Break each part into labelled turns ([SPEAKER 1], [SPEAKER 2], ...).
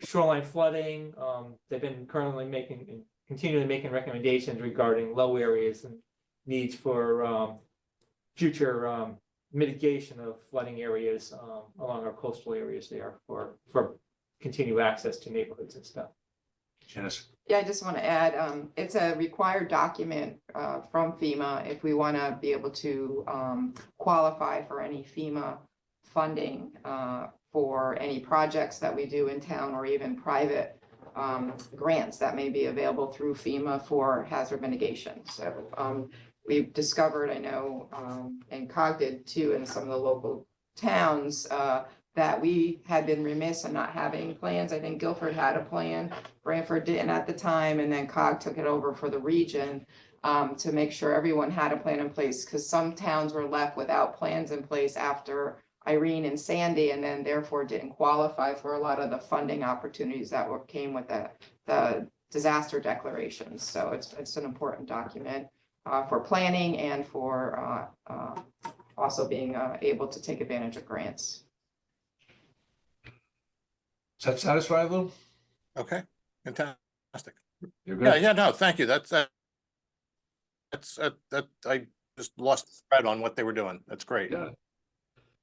[SPEAKER 1] shoreline flooding, um, they've been currently making, continually making recommendations regarding low areas and needs for, um, future, um, mitigation of flooding areas, um, along our coastal areas there for, for continued access to neighborhoods and stuff.
[SPEAKER 2] Janice,
[SPEAKER 3] Yeah, I just want to add, um, it's a required document, uh, from FEMA if we want to be able to, um, qualify for any FEMA funding, uh, for any projects that we do in town or even private, um, grants that may be available through FEMA for hazard mitigation. So, um, we've discovered, I know, um, and COG did too, in some of the local towns, uh, that we had been remiss in not having plans. I think Guilford had a plan. Branford didn't at the time, and then COG took it over for the region um, to make sure everyone had a plan in place, because some towns were left without plans in place after Irene and Sandy, and then therefore didn't qualify for a lot of the funding opportunities that were, came with the, the disaster declarations. So it's, it's an important document uh, for planning and for uh, uh, also being uh, able to take advantage of grants.
[SPEAKER 2] does that satisfy Lou?
[SPEAKER 4] Okay, fantastic.
[SPEAKER 2] You're
[SPEAKER 4] Yeah,
[SPEAKER 2] good?
[SPEAKER 4] yeah, no, thank you. That's, uh, that's, uh, that, I just lost the thread on what they were doing. That's great.
[SPEAKER 2] Yeah.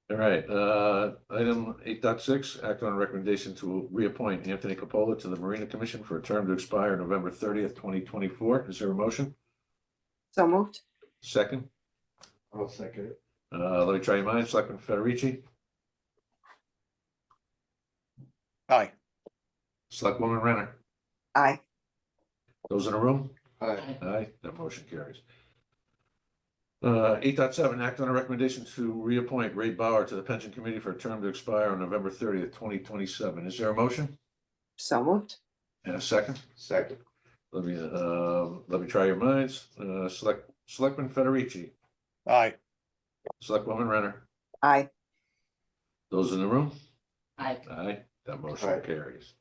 [SPEAKER 2] All right, uh, item eight dot six, act on a recommendation to reappoint Anthony Capola to the Marina Commission for a term to expire November thirtieth, twenty twenty-four. Is there a motion?
[SPEAKER 5] So moved.
[SPEAKER 2] Second?
[SPEAKER 6] I'll second it.
[SPEAKER 2] Uh, let me try your minds. Selectman Federici,
[SPEAKER 4] Aye,
[SPEAKER 2] Selectwoman Renner.
[SPEAKER 5] Aye.
[SPEAKER 2] Those in the room?
[SPEAKER 6] Aye.
[SPEAKER 2] Aye, that motion carries. Uh, eight dot seven, act on a recommendation to reappoint Ray Bauer to the Pension Committee for a term to expire on November thirtieth, twenty twenty-seven. Is there a motion?
[SPEAKER 5] So moved.
[SPEAKER 2] And a second?
[SPEAKER 6] Second.
[SPEAKER 2] Let me, uh, let me try your minds. Uh, select, Selectman Federici,
[SPEAKER 4] aye,
[SPEAKER 2] Selectwoman Renner,
[SPEAKER 5] Aye.
[SPEAKER 2] those in the room?
[SPEAKER 3] Aye.
[SPEAKER 2] Aye, that motion
[SPEAKER 6] Aye.
[SPEAKER 2] carries.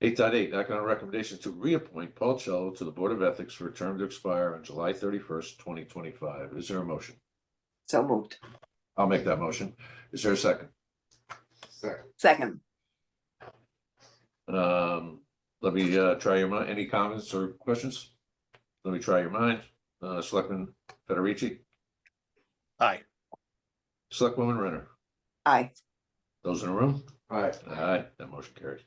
[SPEAKER 2] Eight dot eight, act on a recommendation to reappoint Paul Cello to the Board of Ethics for a term to expire on July thirty-first, twenty twenty-five. Is there a motion?
[SPEAKER 5] So moved.
[SPEAKER 2] I'll make that motion. Is there a second?
[SPEAKER 6] Second.
[SPEAKER 5] Second.
[SPEAKER 2] Um, let me, uh, try your mind. Any comments or questions? Let me try your mind. Uh, Selectman Federici,
[SPEAKER 4] aye,
[SPEAKER 2] Selectwoman Renner,
[SPEAKER 5] Aye.
[SPEAKER 2] those in the room?
[SPEAKER 6] Aye.
[SPEAKER 2] Aye, that motion carries.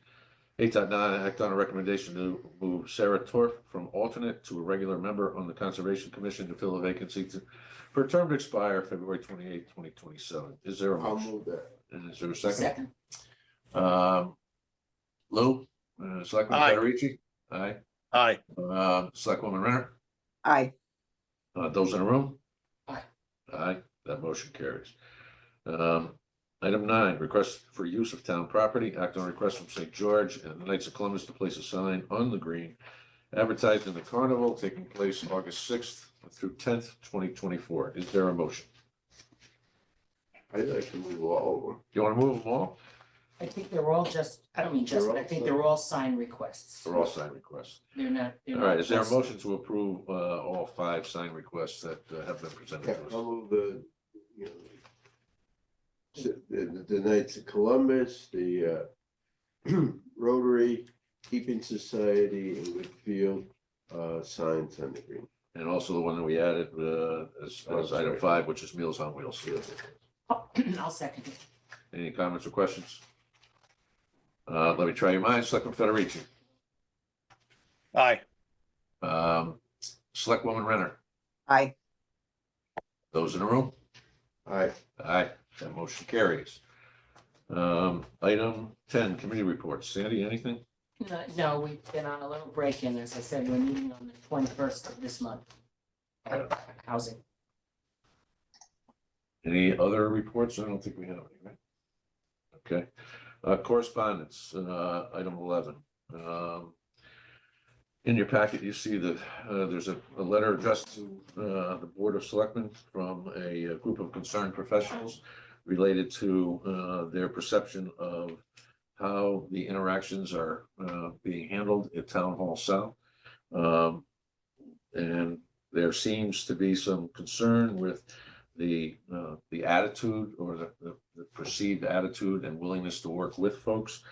[SPEAKER 2] Eight dot nine, act on a recommendation to move Sarah Torf from alternate to a regular member on the Conservation Commission to fill a vacancy to, for a term to expire February twenty-eighth, twenty twenty-seven. Is there a
[SPEAKER 6] I'll
[SPEAKER 2] motion?
[SPEAKER 6] move that.
[SPEAKER 2] And is there a second? Um, Lou, uh, Selectman
[SPEAKER 4] Aye.
[SPEAKER 2] Federici? Aye.
[SPEAKER 4] aye,
[SPEAKER 2] Um, Selectwoman Renner,
[SPEAKER 5] Aye.
[SPEAKER 2] uh, those in the room?
[SPEAKER 6] Aye.
[SPEAKER 2] Aye, that motion carries. Um, item nine, request for use of town property, act on request from St. George and the Knights of Columbus to place a sign on the green advertised in the carnival taking place August sixth through tenth, twenty twenty-four. Is there a motion?
[SPEAKER 6] I'd like to move all over.
[SPEAKER 2] Do you want to move them all?
[SPEAKER 7] I think they're all just, I don't mean just, but I think they're all sign requests.
[SPEAKER 2] They're all sign requests.
[SPEAKER 7] They're not. they're
[SPEAKER 2] All right,
[SPEAKER 7] not
[SPEAKER 2] is there a
[SPEAKER 7] just-
[SPEAKER 2] motion to approve, uh, all five sign requests that uh, have been presented
[SPEAKER 6] Yeah,
[SPEAKER 2] to
[SPEAKER 6] I'll
[SPEAKER 2] us?
[SPEAKER 6] move the, you know, the- the, the Knights of Columbus, the, uh, Rotary, Keeping Society, and Whitfield, uh, signs on the green.
[SPEAKER 2] And also the one that we added, uh, as, as item five, which is Meals on Wheels.
[SPEAKER 7] Oh, I'll second it.
[SPEAKER 2] Any comments or questions? Uh, let me try your minds, Selectman Federici,
[SPEAKER 4] aye,
[SPEAKER 2] um, Selectwoman Renner,
[SPEAKER 5] Aye.
[SPEAKER 2] those in the room?
[SPEAKER 6] Aye.
[SPEAKER 2] Aye, that motion carries. Um, item ten, committee reports. Sandy, anything?
[SPEAKER 7] No, No, we've been on a little break in, as I said, we're meeting on the twenty-first of this month. At Housing.
[SPEAKER 2] Any other reports? I don't think we have any, right? Okay, uh, correspondence, uh, item eleven. Um, In your packet, you see that, uh, there's a, a letter addressed to, uh, the Board of Selectmen from a uh, group of concerned professionals related to, uh, their perception of how the interactions are, uh, being handled at Town Hall South. Um, And there seems to be some concern with the, uh, the attitude or the, the the perceived attitude and willingness to work with folks